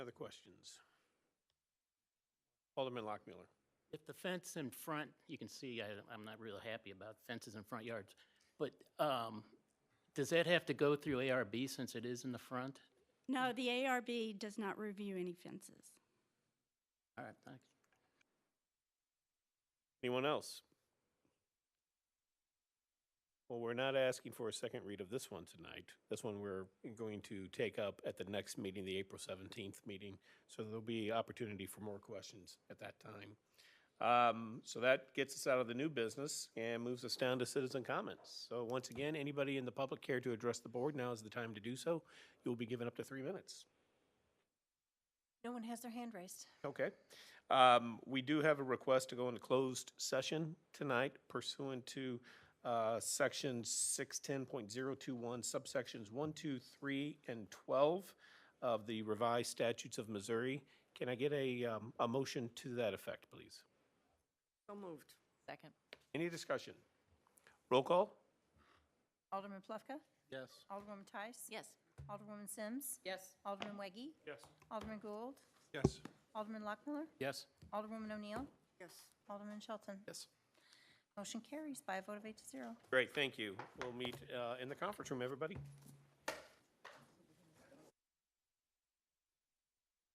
questions? Alderman Lockmiller. If the fence in front, you can see, I, I'm not real happy about fences in front yards, but, um, does that have to go through ARB since it is in the front? No, the ARB does not review any fences. All right, thanks. Anyone else? Well, we're not asking for a second read of this one tonight. This one we're going to take up at the next meeting, the April 17th meeting. So there'll be opportunity for more questions at that time. Um, So that gets us out of the new business and moves us down to citizen comments. So once again, anybody in the public care to address the board, now is the time to do so. You'll be given up to three minutes. No one has their hand raised. Okay. Um, We do have a request to go into closed session tonight pursuant to uh, Section 610.021 subsections 1, 2, 3, and 12 of the revised statutes of Missouri. Can I get a, um, a motion to that effect, please? So moved. Second. Any discussion? Roll call? Alderman Plufka? Yes. Alderwoman Tice? Yes. Alderwoman Sims? Yes. Alderman Weggie? Yes. Alderman Gould? Yes. Alderman Lockmiller? Yes. Alderwoman O'Neill? Yes. Alderman Shelton? Yes. Motion carries by a vote of eight to zero. Great, thank you. We'll meet uh, in the conference room, everybody.